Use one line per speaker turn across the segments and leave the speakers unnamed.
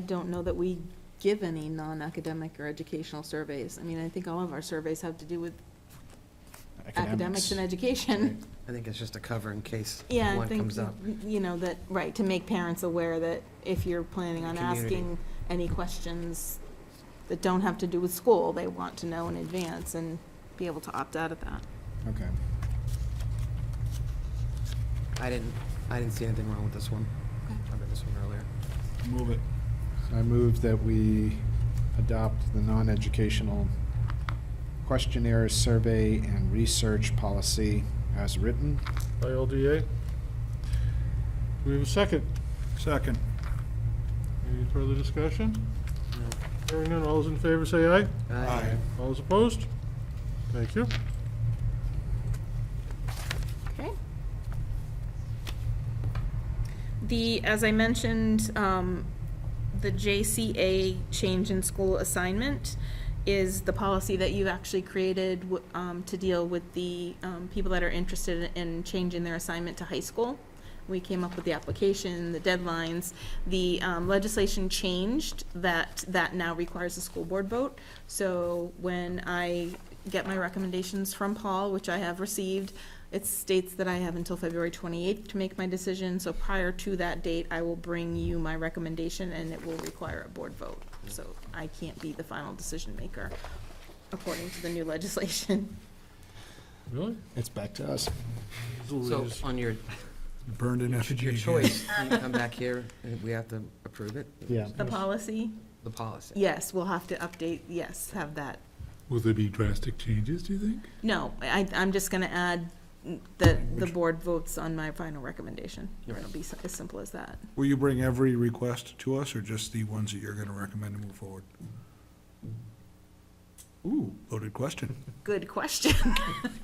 I don't know that we give any non-academic or educational surveys. I mean, I think all of our surveys have to do with academics and education.
I think it's just a cover in case
Yeah, I
one
think,
comes up.
you know, that, right, to make parents aware that if you're planning on
Community.
asking any questions that don't have to do with school, they want to know in advance and be able to opt out of that.
Okay.
I didn't, I didn't see anything wrong with this one. I read this one earlier.
Move it. I move that we adopt the non-educational questionnaire survey and research policy as written.
by LDA. Do we have a second?
Second.
Any further discussion? Hearing none, all those in favor say aye.
Aye.
All those opposed? Thank you.
Okay. The, as I mentioned, um, the JCA change in school assignment is the policy that you actually created, w- um, to deal with the, um, people that are interested in changing their assignment to high school. We came up with the application, the deadlines. The um, legislation changed that, that now requires a school board vote. So when I get my recommendations from Paul, which I have received, it states that I have until February 28th to make my decision. So prior to that date, I will bring you my recommendation and it will require a board vote. So I can't be the final decision maker according to the new legislation.
Really?
It's back to us.
So
Louise.
on your,
Burned in
your
effigy.
choice, can you come back here and we have to approve it?
Yeah.
The policy,
The policy.
yes, we'll have to update, yes, have that
Will there be drastic changes, do you think?
No, I, I'm just gonna add that the board votes on my final recommendation.
You're
It'll be s- as simple as that.
Will you bring every request to us, or just the ones that you're gonna recommend to move forward? Ooh, loaded question.
Good question.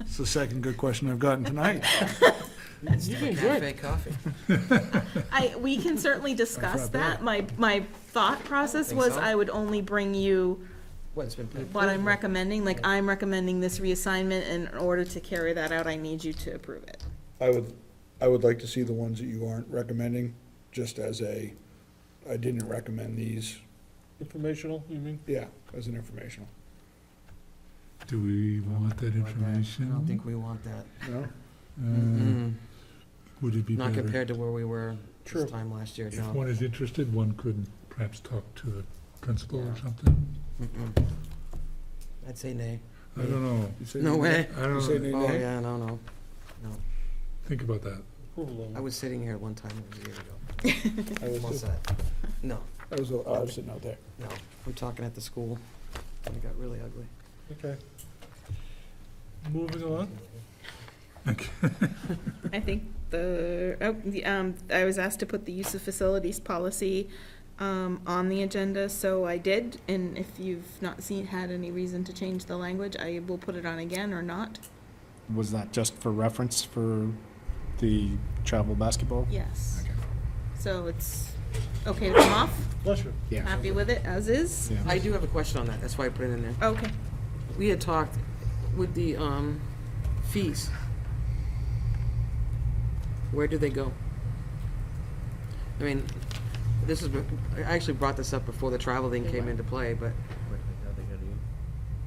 It's the second good question I've gotten tonight.
You're doing good. Cafe coffee.
I, we can certainly discuss that. My, my thought process
Think
was
so?
I would only bring you
What, it's been.
what I'm recommending, like I'm recommending this reassignment, and in order to carry that out, I need you to approve it.
I would, I would like to see the ones that you aren't recommending, just as a, I didn't recommend these,
Informational, you mean?
yeah, as an informational.
Do we want that
I don't
information?
think we want that.
No?
Uh,
Mm-mm.
Would it be
Not
better?
compared to where we were
True.
this time last year,
If
no.
one is interested, one could perhaps talk to the principal
Yeah.
or something?
Mm-mm. I'd say nay.
I don't know.
You say
No
you-
way.
I don't
say
know.
Nay,
Oh,
nay?
yeah, no, no.
Think about that.
Approval
I
level.
was sitting here one time, it was a year ago.
I was,
All
just-
set. No,
I was, I was sitting out there.
no, I'm talking at the school, and it got really ugly.
Okay. Moving on.
I think the, oh, the, um, I was asked to put the use of facilities policy, um, on the agenda, so I did. And if you've not seen, had any reason to change the language, I will put it on again or not.
Was that just for reference for the travel basketball?
Yes.
Okay.
So it's okay to come off,
Bless you.
Yeah.
happy with it as is?
Yeah.
I do have a question on that, that's why I put it in there.
Okay.
We had talked with the um, fees. Where do they go? I mean, this is, I actually brought this up before the travel thing came into play, but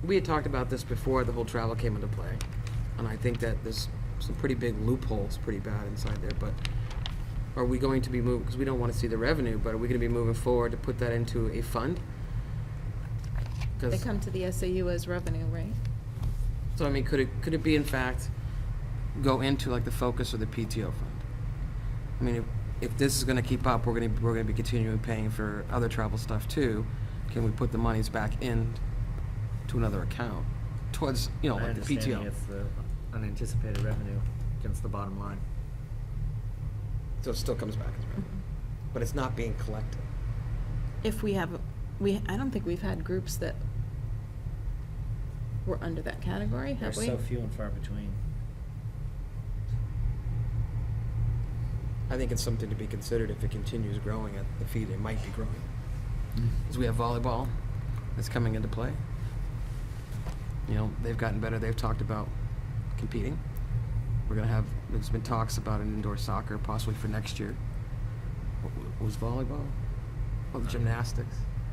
we had talked about this before the whole travel came into play. And I think that there's some pretty big loopholes, pretty bad inside there, but are we going to be moving, because we don't want to see the revenue, but are we going to be moving forward to put that into a fund? 'Cause-
They come to the SAU as revenue, right?
so I mean, could it, could it be in fact go into like the focus of the PTO fund? I mean, if, if this is gonna keep up, we're gonna, we're gonna be continuing paying for other travel stuff too. Can we put the monies back in to another account towards, you know,
My
like the
understanding
PTO?
it's the unanticipated revenue against the bottom line.
So it still comes back as
Mm-hmm.
revenue, but it's not being collected.
If we have, we, I don't think we've had groups that were under that category,
They're
have we?
so few and far between.
I think it's something to be considered if it continues growing at the fee they might be growing. Because we have volleyball that's coming into play. You know, they've gotten better, they've talked about competing. We're gonna have, there's been talks about an indoor soccer possibly for next year. What- what Was volleyball? Well, the gymnastics.